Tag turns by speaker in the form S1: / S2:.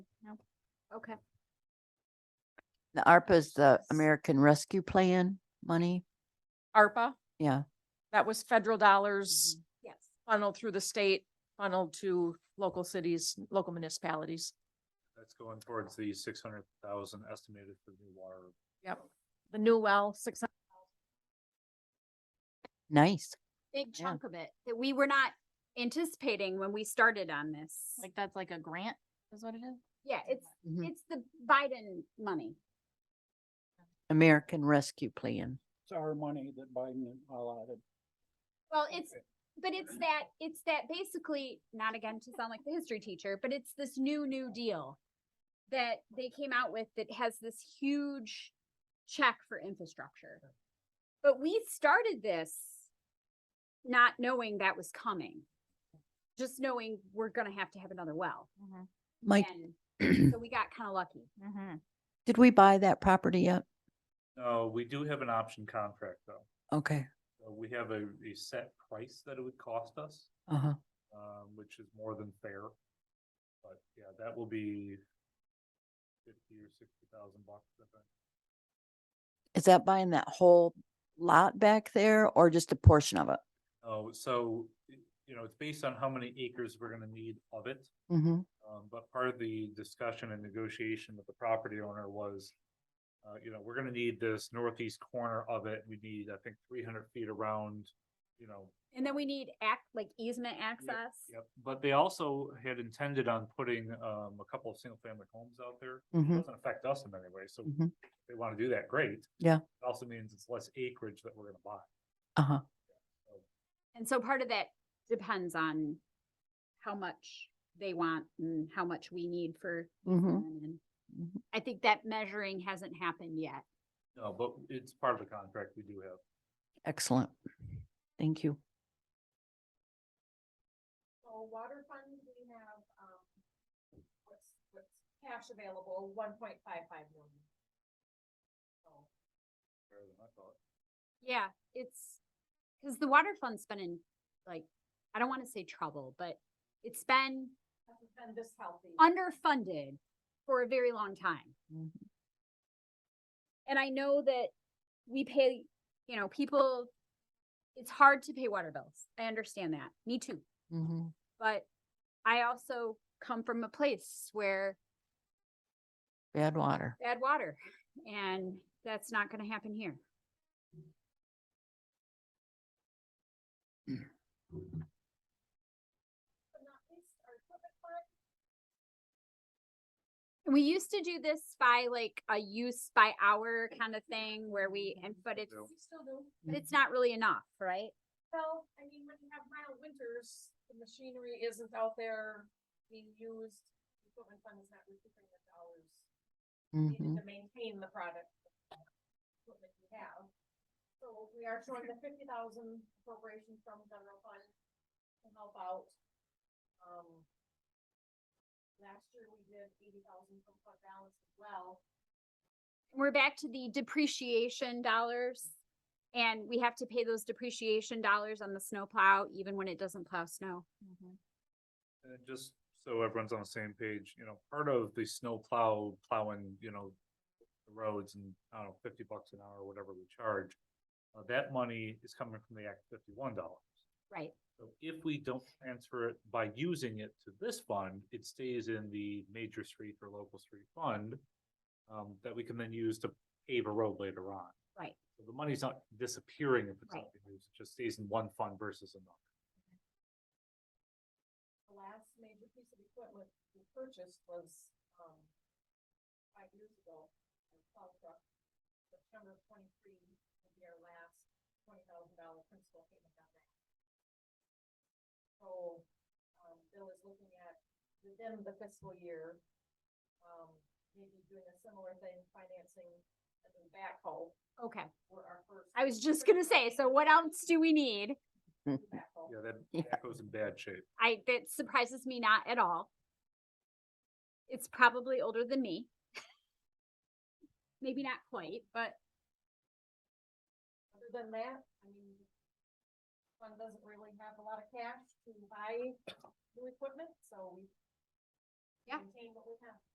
S1: Okay.
S2: The ARPA is the American Rescue Plan money.
S3: ARPA.
S2: Yeah.
S3: That was federal dollars
S4: Mm-hmm.
S1: Yes.
S5: Mm-hmm.
S3: funneled through the state, funneled to local cities, local municipalities.
S6: That's going towards the six hundred thousand estimated for new water.
S3: Yep. The new well, six hundred,
S2: Nice.
S1: Big
S2: Yeah.
S1: chunk of it that we were not anticipating when we started on this.
S4: Like that's like a grant is what it is? Mm-hmm.
S1: Yeah, it's,
S2: Mhm.
S1: it's the Biden money.
S2: American Rescue Plan.
S7: It's our money that Biden allotted.
S1: Well, it's, but it's that, it's that basically, not again to sound like the history teacher, but it's this new, new deal that they came out with that has this huge check for infrastructure. But we started this not knowing that was coming. Just knowing we're gonna have to have another well.
S2: Mike,
S1: And
S2: did
S1: so we got kind of lucky.
S4: Mm-hmm.
S2: we buy that property yet?
S6: No, we do have an option contract though.
S2: Okay.
S6: So We have a, a set price that it would cost us,
S2: Uh huh.
S6: um, which is more than fair. But yeah, that will be fifty or sixty thousand bucks. I think.
S2: Is that buying that whole lot back there or just a portion of it?
S6: Oh, so, y- you know, it's based on how many acres we're gonna need of it.
S2: Mm-hmm.
S6: Um, but part of the discussion and negotiation with the property owner was, uh, you know, we're gonna need this northeast corner of it. We need, I think, three hundred feet around, you know.
S1: And then we need act, like easement access.
S6: Yep. But they also had intended on putting, um, a couple of single-family homes out there. It
S2: Mm-hmm.
S6: Doesn't affect us in any way, so if
S2: Mhm.
S6: they wanna do that, great.
S2: Yeah.
S6: It Also means it's less acreage that we're gonna buy.
S2: Uh huh.
S1: And so part of that depends on how much they want and how much we need for.
S2: Mm-hmm.
S1: and
S2: Mhm.
S1: I think that measuring hasn't happened yet.
S6: No, but it's part of the contract we do have.
S2: Excellent. Thank you.
S5: So water fund, we have, um, what's, what's cash available, one point five five million. So,
S6: Fair than I thought.
S1: Yeah, it's, cause the water fund's been in, like, I don't wanna say trouble, but it's been
S5: hasn't been this healthy.
S1: underfunded for a very long time.
S2: Mhm.
S1: And I know that we pay, you know, people, it's hard to pay water bills. I understand that. Me too.
S2: Mm-hmm.
S1: But I also come from a place where
S2: Bad water.
S1: bad water and that's not gonna happen here.
S5: But not least, our equipment fund,
S1: And we used to do this by like a use by hour kind of thing where we, and but it's,
S6: Yep.
S5: we still do,
S1: but it's not really enough, right?
S5: well, I mean, when you have mild winters, the machinery isn't out there being used. the Equipment fund is not recouping the dollars
S2: Mm-hmm.
S5: needed to maintain the product. Equipment we have. So we are showing the fifty thousand appropriation from general fund to help out. Um. Last year we did eighty thousand from fund balance as well.
S1: We're back to the depreciation dollars. And we have to pay those depreciation dollars on the snow plow even when it doesn't plow snow.
S6: And just so everyone's on the same page, you know, part of the snow plow, plowing, you know, the roads and, I don't know, fifty bucks an hour, or whatever we charge. Uh, that money is coming from the Act fifty-one dollars.
S1: Right.
S6: So if we don't transfer it by using it to this fund, it stays in the major street or local street fund. Um, that we can then use to pave a road later on.
S1: Right.
S6: So the money's not disappearing if it's
S1: Right.
S6: not being used, it just stays in one fund versus another.
S5: The last major piece of equipment we purchased was, um, five years ago, a plow truck. September twenty-three, will be our last twenty thousand dollar principal payment on that. So, um, Bill is looking at within the fiscal year, um, maybe doing a similar thing, financing a new backhoe
S1: Okay,
S5: for our first.
S1: I was just gonna say, so what else do we need?
S5: new backhoe.
S6: Yeah,
S2: Yeah.
S6: that, that goes in bad shape.
S1: I, that surprises me not at all. It's probably older than me. Maybe not quite, but
S5: Other than that, I mean, fund doesn't really have a lot of cash to buy new equipment, so we
S1: Yeah.
S5: maintain what we have.